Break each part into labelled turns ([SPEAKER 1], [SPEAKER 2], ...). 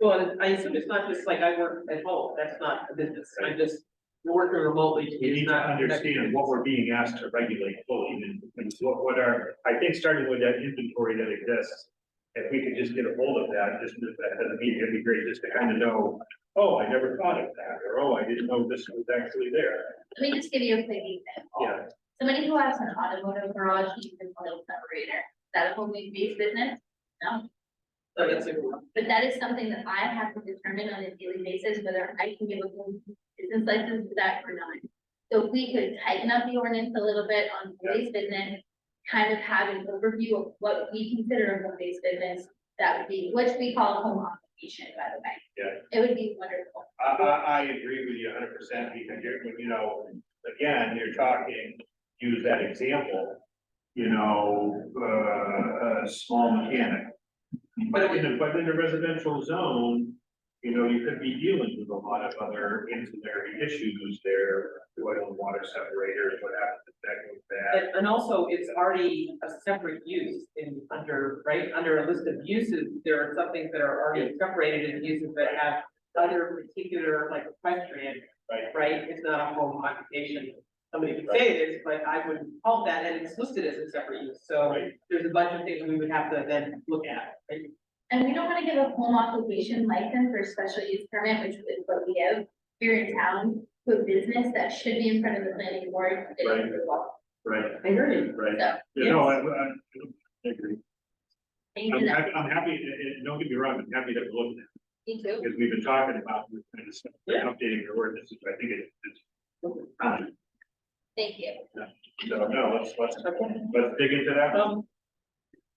[SPEAKER 1] Well, and I assume it's not just like I work at home, that's not a business, I'm just working remotely.
[SPEAKER 2] We need to understand what we're being asked to regulate fully and, and what, what are, I think starting with that inventory that exists. If we could just get a hold of that, just at the meeting, it'd be great just to kind of know, oh, I never thought of that, or oh, I didn't know this was actually there.
[SPEAKER 3] Let me just give you a quick example.
[SPEAKER 2] Yeah,
[SPEAKER 3] Somebody who has an automotive garage needs an oil separator, Is that a whole new base business? No,
[SPEAKER 1] So that's a good one.
[SPEAKER 3] but that is something that I have to determine on a daily basis whether I can give a home business license to that or not. So if we could tighten up the ordinance a little bit on base business, kind of have an overview of what we consider a home base business, that would be, which we call home occupation, by the way.
[SPEAKER 2] Yeah.
[SPEAKER 3] It would be wonderful.
[SPEAKER 2] I, I, I agree with you hundred percent, because you're, you know, again, you're talking, use that example. You know, uh, a small mechanic. But in the, but in the residential zone, you know, you could be dealing with a lot of other ancillary issues there. Oil and water separators, what happens if that goes bad?
[SPEAKER 1] And, and also, it's already a separate use in, under, right, under a list of uses, there are some things that are already separated in uses that have other particular, like equestrian,
[SPEAKER 2] Right.
[SPEAKER 1] right, it's not a home occupation. Somebody could say it is, but I wouldn't call that, and it's listed as a separate use, so
[SPEAKER 2] Right.
[SPEAKER 1] there's a bunch of things we would have to then look at, right?
[SPEAKER 3] And we don't wanna give a home occupation license or special use permit, which is what we give here in town, to a business that should be in front of the planning board. if
[SPEAKER 2] Right.
[SPEAKER 3] approval.
[SPEAKER 2] Right,
[SPEAKER 1] I hear you.
[SPEAKER 2] right.
[SPEAKER 3] So,
[SPEAKER 2] You know, I, I I agree.
[SPEAKER 3] thank
[SPEAKER 2] I'm
[SPEAKER 3] you,
[SPEAKER 2] happy, I'm happy, and- and don't get me wrong, I'm happy to look at
[SPEAKER 3] me too.
[SPEAKER 2] because we've been talking about this kind of stuff,
[SPEAKER 1] Yeah.
[SPEAKER 2] updating your ordinances, I think it's, it's time.
[SPEAKER 3] Thank you.
[SPEAKER 2] So, no, let's, let's,
[SPEAKER 1] Okay.
[SPEAKER 2] let's dig into that.
[SPEAKER 1] Um,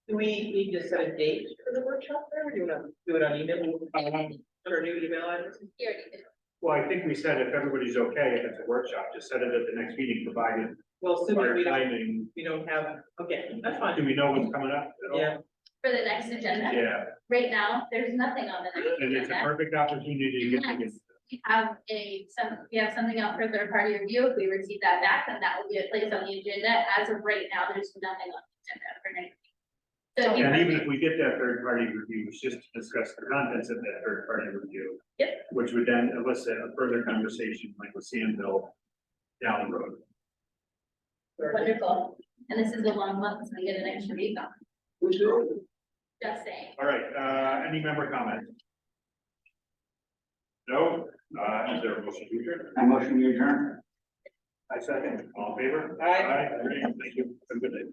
[SPEAKER 1] do we need to set a date for the workshop, there, or do you wanna do it on email,
[SPEAKER 2] Um,
[SPEAKER 1] or new email address?
[SPEAKER 3] Here it is.
[SPEAKER 2] Well, I think we said if everybody's okay, if it's a workshop, just set it at the next meeting, provided
[SPEAKER 1] Well, assuming
[SPEAKER 2] our
[SPEAKER 1] we don't,
[SPEAKER 2] timing.
[SPEAKER 1] we don't have, okay, that's
[SPEAKER 2] Do
[SPEAKER 1] fine,
[SPEAKER 2] we know what's coming up at all?
[SPEAKER 1] yeah,
[SPEAKER 3] For the next agenda,
[SPEAKER 2] Yeah,
[SPEAKER 3] right now, there's nothing on the next
[SPEAKER 2] and it's a
[SPEAKER 3] agenda.
[SPEAKER 2] perfect opportunity to get to get.
[SPEAKER 3] We have a, some, we have something out for third party review. If we receive that back, then that will be a place on the agenda. As of right now, there's nothing on the agenda for next. week. So if you
[SPEAKER 2] And
[SPEAKER 3] have-
[SPEAKER 2] even if we get that third party review, it's just to discuss the contents of that third party review.
[SPEAKER 3] Yep.
[SPEAKER 2] Which would then elicit a further conversation like with Sandville down the road.
[SPEAKER 3] Wonderful. And this is a long month, so we get an extra week off. Just saying.
[SPEAKER 2] All right, uh, any member comment? No, uh, is there a motion to adjourn?
[SPEAKER 4] I motion we adjourn.
[SPEAKER 2] I second. All in favor?
[SPEAKER 1] Aye.
[SPEAKER 2] great, thank you, have a good day.